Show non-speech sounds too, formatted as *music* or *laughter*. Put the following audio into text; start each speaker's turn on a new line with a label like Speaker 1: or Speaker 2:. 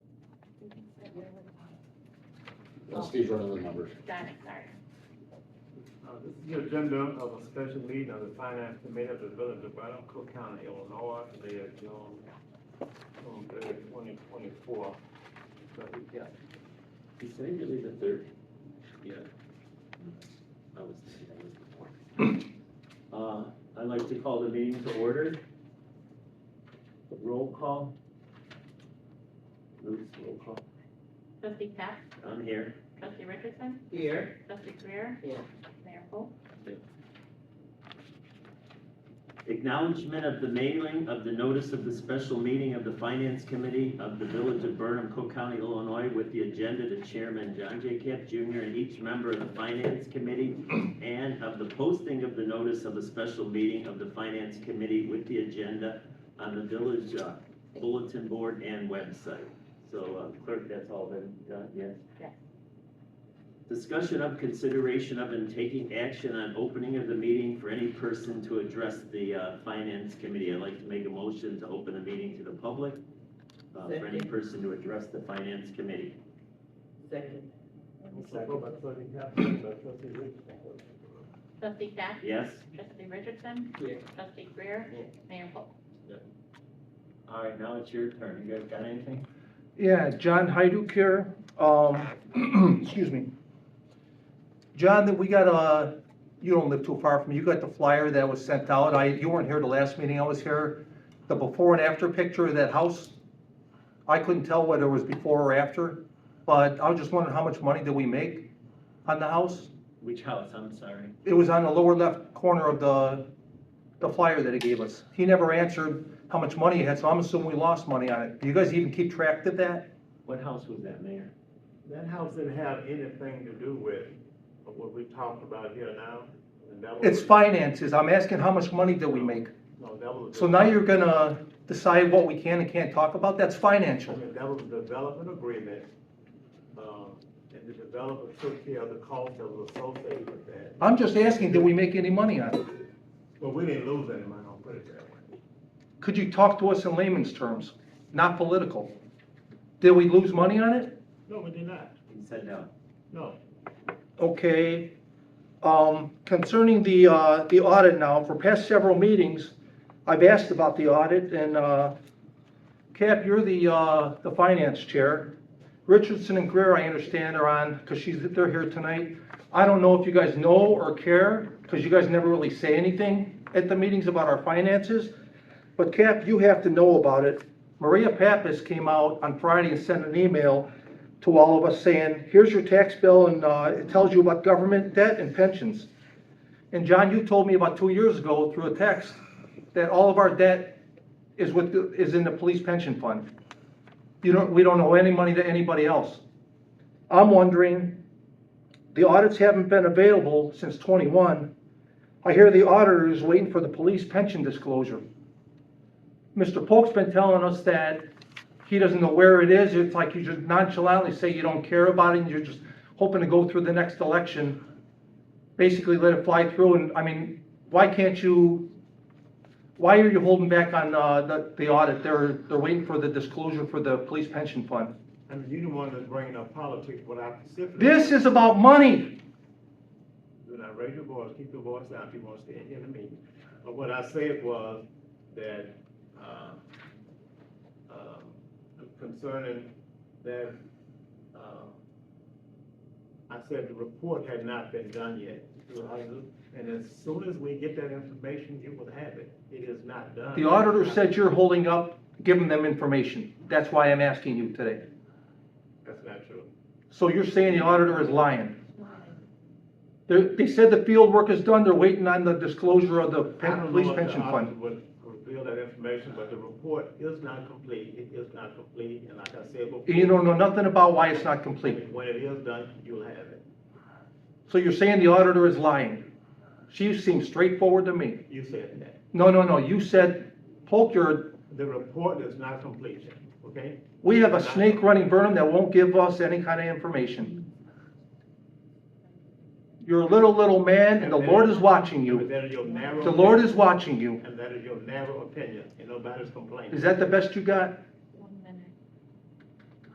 Speaker 1: Because Steve's running the numbers.
Speaker 2: Got it, sorry.
Speaker 3: Uh, This is the agenda of a special meeting of the finance committee of the village of Braddock, Cook County, Illinois, today is June third, twenty twenty-four.
Speaker 1: He said he leave at thirty. Yeah. I was, that was the point. Uh, I'd like to call the meeting to order. Roll call. Luke's roll call.
Speaker 2: Trustee Cap,
Speaker 1: I'm here.
Speaker 2: trustee Richardson,
Speaker 4: Here.
Speaker 2: trustee Greer.
Speaker 4: Yeah.
Speaker 2: Mayor Cole.
Speaker 1: Acknowledgement of the mailing of the notice of the special meeting of the Finance Committee of the Village of Burnham, Cook County, Illinois, with the agenda to Chairman John J. Camp Jr. and each member of the Finance Committee, and of the posting of the notice of the special meeting of the Finance Committee with the agenda on the village uh, bulletin board and website. So uh, clerk, that's all been done, yes?
Speaker 2: Yes.
Speaker 1: Discussion of consideration of and taking action on opening of the meeting for any person to address the uh, Finance Committee. I'd like to make a motion to open the meeting to the public uh, for any
Speaker 4: Second.
Speaker 1: person to address the Finance Committee.
Speaker 4: Second.
Speaker 3: Support by trustee Cap, second by trustee Richardson.
Speaker 2: Trustee Cap,
Speaker 1: Yes?
Speaker 2: trustee Richardson,
Speaker 4: Yeah.
Speaker 2: trustee Greer. Mayor Cole.
Speaker 1: All right, now it's your turn. You guys got anything?
Speaker 5: Yeah, John Hyduk here, um, *clears throat* excuse me. John, that we got a, you don't live too far from, me. you got the flyer that was sent out, I, you weren't here the last meeting I was here. The before and after picture of that house, I couldn't tell whether it was before or after, but I was just wondering how much money did we make on the house?
Speaker 1: Which house? I'm sorry.
Speaker 5: It was on the lower left corner of the, the flyer that he gave us. He never answered how much money he had, so I'm assuming we lost money on it. Do you guys even keep track of that?
Speaker 1: What house was that, Mayor?
Speaker 3: That house didn't have anything to do with what we talked about here now. and that was-
Speaker 5: It's finances, I'm asking how much money did we make?
Speaker 3: No, that was. a-
Speaker 5: So now you're gonna decide what we can and can't talk about, that's
Speaker 3: I
Speaker 5: financial.
Speaker 3: mean, That was a development agreement, um, and the developer took care of the cost that was associated with that.
Speaker 5: I'm just asking, did we make any money on it?
Speaker 3: Well, we didn't lose any money, I'll put it that way.
Speaker 5: Could you talk to us in layman's terms, not political? Did we lose money on it?
Speaker 3: No, we did not,
Speaker 1: He said uh, no.
Speaker 3: no.
Speaker 5: Okay, um, concerning the, uh, the audit now, for past several meetings, I've asked about the audit, and, uh, Cap, you're the, uh, the finance chair. Richardson and Greer, I understand, are on, because she's, they're here tonight. I don't know if you guys know or care, because you guys never really say anything at the meetings about our finances. But Cap, you have to know about it. Maria Pappas came out on Friday and sent an email to all of us saying, here's your tax bill and, uh, it tells you about government debt and pensions. And John, you told me about two years ago through a text that all of our debt is with, the- is in the police pension fund. You don't, we don't owe any money to anybody else. I'm wondering, the audits haven't been available since twenty-one. I hear the auditor is waiting for the police pension disclosure. Mr. Polk's been telling us that he doesn't know where it is, it's like you just nonchalantly say you don't care about it, and you're just hoping to go through the next election, basically let it fly through, and, I mean, why can't you, why are you holding back on, uh, the, the audit? They're, they're waiting for the disclosure for the police pension fund.
Speaker 3: I mean, you the one that's bringing up politics, what I specifically.
Speaker 5: This is about money,
Speaker 3: Do not raise your voice, keep your voice down if you want to stay in the meeting. But what I said was that, uh, um, concerning that, uh, I said the report had not been done yet. And as soon as we get that information, you will have it. It is not done.
Speaker 5: the auditor said you're holding up giving them information, that's why I'm asking you today.
Speaker 3: That's not true.
Speaker 5: So you're saying the auditor is lying? They, they said the field work is done, they're waiting on the disclosure of the
Speaker 3: I
Speaker 5: pen-
Speaker 3: don't know
Speaker 5: police
Speaker 3: if the
Speaker 5: pension
Speaker 3: auditor
Speaker 5: fund.
Speaker 3: Would reveal that information, but the report is not complete. It is not complete, and like I said before.
Speaker 5: And you don't know nothing about why it's not complete.
Speaker 3: When it is done, you'll have it.
Speaker 5: So you're saying the auditor is lying? She seems straightforward to me.
Speaker 3: You said that.
Speaker 5: No, no, no, you said, Polk, you're,
Speaker 3: The report is not complete yet, okay?
Speaker 5: we have a snake running Burnham that won't give us any kind of information. You're a little, little man, and the Lord is watching
Speaker 3: And
Speaker 5: you.
Speaker 3: that is your narrow.
Speaker 5: The Lord
Speaker 3: opinion.
Speaker 5: is watching you.
Speaker 3: And that is your narrow opinion, and nobody's complaining.
Speaker 5: Is that the best you got?